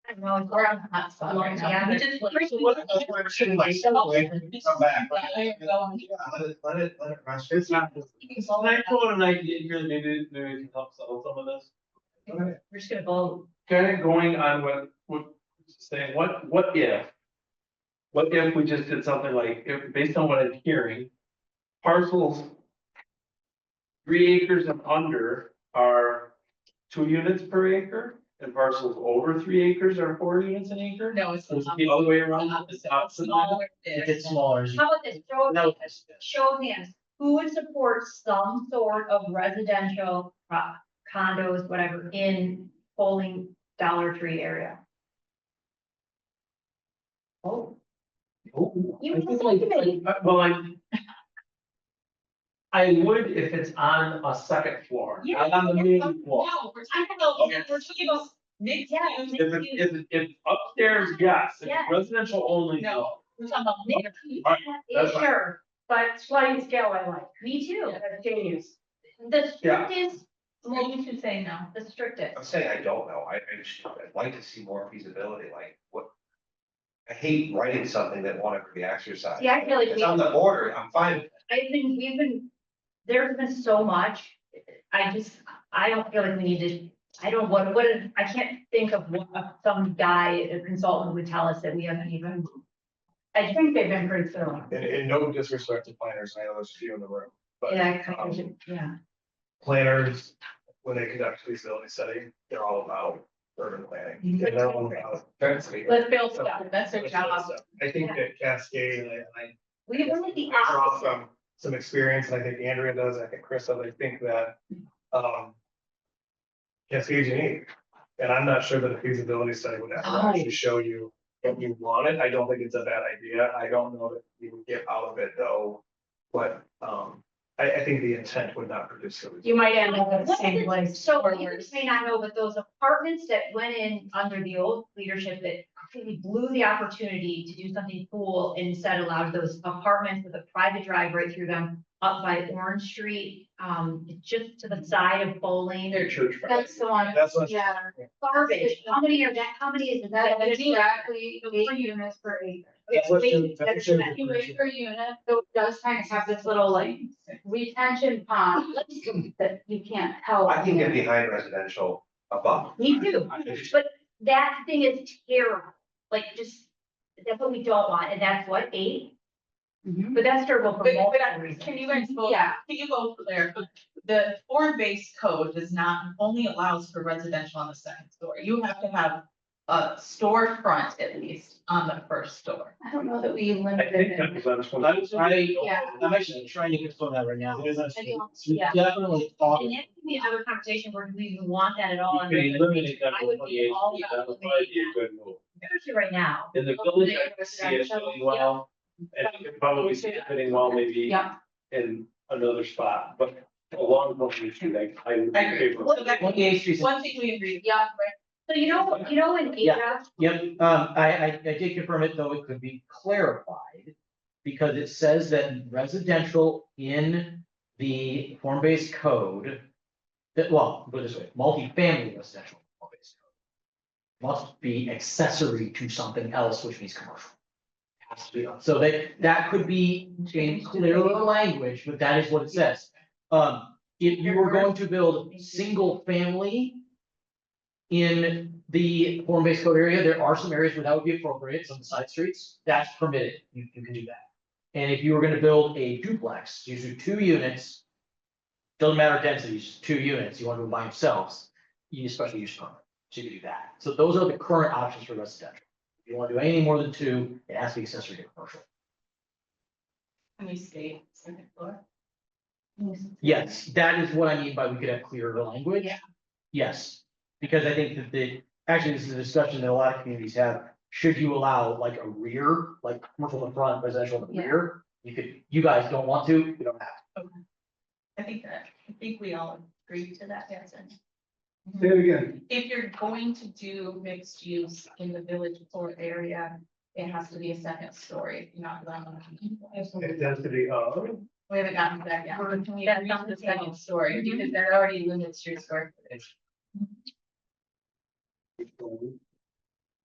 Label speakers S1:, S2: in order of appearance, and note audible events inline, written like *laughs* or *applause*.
S1: well, we're on the hot spot right now.
S2: Yeah.
S1: We just-
S3: So what if I were to shit myself, like, come back?
S2: I am going.
S3: Yeah, Let it, let it, let it rest. It's not.
S2: Well,
S4: Well, I told him, like, you really maybe, maybe we can help settle some of this.
S3: Okay.
S1: We're just gonna vote.
S4: Kind of going on what, what, saying, what, what if? What if we just did something like, if, based on what I'm hearing, parcels. Three acres and under are two units per acre, and parcels over three acres are four units an acre?
S2: No, it's.
S4: So it's the other way around.
S2: Opposite.
S4: Opposite.
S2: Smaller
S3: It
S2: fish.
S3: gets smaller as you.
S1: How about this, show,
S3: No.
S1: show of hands, who would support some sort of residential pro- condos, whatever, in polling Dollar Tree area? Oh,
S4: Ooh,
S1: You
S4: Oh, I think
S1: must
S4: like-
S1: be.
S4: I- Well, I. I would if it's on a second floor,
S2: Yeah. um,
S4: not on the
S2: No,
S4: main floor.
S2: we're talking about,
S4: Okay.
S2: we're talking about um, mixed
S1: Yeah.
S2: use.
S4: If it, if it, if upstairs, yes, if
S1: Yes.
S4: it's residential only, no.
S2: No. We're talking about mixed use.
S4: Alright,
S1: yeah,
S4: that's fine.
S1: sure, but sliding scale I like, me too, that's genius. The
S4: Yeah.
S1: strictest,
S2: Well, we should say no.
S1: the strictest.
S5: I'm saying I don't know, I, I just, I'd like to see more feasibility, like, what? I hate writing something that won't ever be exercised.
S1: See, I feel like
S5: It's
S1: we-
S5: on the border, I'm fine,
S1: I've been, we've been, there's been so much, I just, I don't feel like we need to, I don't, what, what, if- I can't think of what some guy, a consultant would tell us that we haven't even. I think they've been pretty thorough.
S3: And, and no disrespect to planners, I know there's a few in the room, but.
S1: Yeah, I kind of should- yeah,
S3: planners, when they conduct feasibility study, they're all about urban planning. And they're all about density.
S2: Let's build stuff, that's their
S3: That's really
S2: job.
S3: stuff. I think that Cascade, and I, I
S1: we were like the
S3: draw
S1: opposite,
S3: some, some experience, and I think Andrea does, I think Chris does, I think that, um. Cascade's unique, and I'm not sure that a feasibility study would ever actually show you what you wanted, I don't think it's a bad idea, I don't know that you would get out of it though. But, um, I, I think the intent would not produce. the
S6: You might end up at the
S1: What's
S6: same
S1: the-
S6: place.
S1: so
S2: or
S1: you
S2: worse.
S1: may not know, but those apartments that went in under the old leadership that completely blew the opportunity to do something cool instead allowed those apartments with a private drive right through them up by Orange Street, um, just to the side of Bowling.
S4: Their church.
S6: That's the one,
S3: That's what.
S6: yeah.
S1: Garbage, how many are that, how many is that?
S6: That is exactly eight units per acre.
S3: That's what
S6: Wait,
S3: should- that
S6: that's
S3: should-
S6: not- per unit, so it does kind of have this little like retention
S2: *laughs*
S6: pond that you can't help.
S5: I can get behind residential above.
S1: Me too, but that thing is terrible, like just, that's what we don't want, and that's what, eight?
S6: Mhm.
S1: But that's terrible for
S2: But- but
S1: multiple
S2: I-
S1: reasons.
S2: Can you guys vote?
S6: Yeah.
S2: Can you vote there? The form-based code does not, only allows for residential on the second story. You have to have a storefront at least on the first store.
S6: I don't know that we
S4: I
S6: limited
S4: think that
S6: it.
S4: was on this one.
S6: Yeah.
S7: I'm actually trying to confirm that right now. It is on
S6: I don't-
S7: It's
S6: yeah.
S7: Definitely off.
S1: And that could be another conversation where do we even want that at all.
S4: You
S1: in
S4: could eliminate
S1: residential?
S4: that
S1: I
S4: from
S1: would be
S4: twenty-eight,
S1: all
S4: that
S1: about
S4: would probably be
S1: eliminating
S4: a good move.
S1: that, especially right now.
S4: In the village, I could see it fitting well, and I could probably see it fitting well maybe
S6: Yeah.
S4: in another spot, but along the street, like, I would
S2: I agree.
S4: favor.
S2: So that-
S7: Twenty-eighth Street.
S2: One thing we agree,
S6: Yeah,
S1: So you know, you know, in
S7: Yeah.
S1: Asia,
S7: Yep, um, I, I, I did confirm it, though it could be clarified. Because it says that residential in the form-based code. That, well, put it this way, multifamily residential form-based code. Must be accessory to something else, which means commercial. Has to be, so they, that could be changed clearly in the language, but that is what it says. Um, if you were going to build single family. In the form-based code area, there are some areas where that would be appropriate, some side streets, that's permitted, you, you can do that. And if you were gonna build a duplex, these are two units. Doesn't matter density, just two units, you want to by themselves, you need a special use permit, so you can do that. So those are the current options for residential. If you wanna do anything more than two, it has to be accessory to commercial.
S2: can we state second floor?
S7: Yes, that is what I mean by we could have clearer language.
S2: Yeah.
S7: Yes, because I think that the, actually, this is a discussion that a lot of communities have. Should you allow like a rear, like commercial in the front, residential in the
S6: Yeah.
S7: rear? You could, you guys don't want to, you don't have to.
S2: I think that, I think we all agree to that, yes. and
S4: Say it again.
S2: If you're going to do mixed use in the village floor area, it has to be a second story, not one.
S3: It has to be, uh,
S2: We haven't gotten to that yet. Can we
S1: That's
S2: agree
S1: on
S2: on
S1: the Mhm.
S2: the second story? Because that already limits your square footage.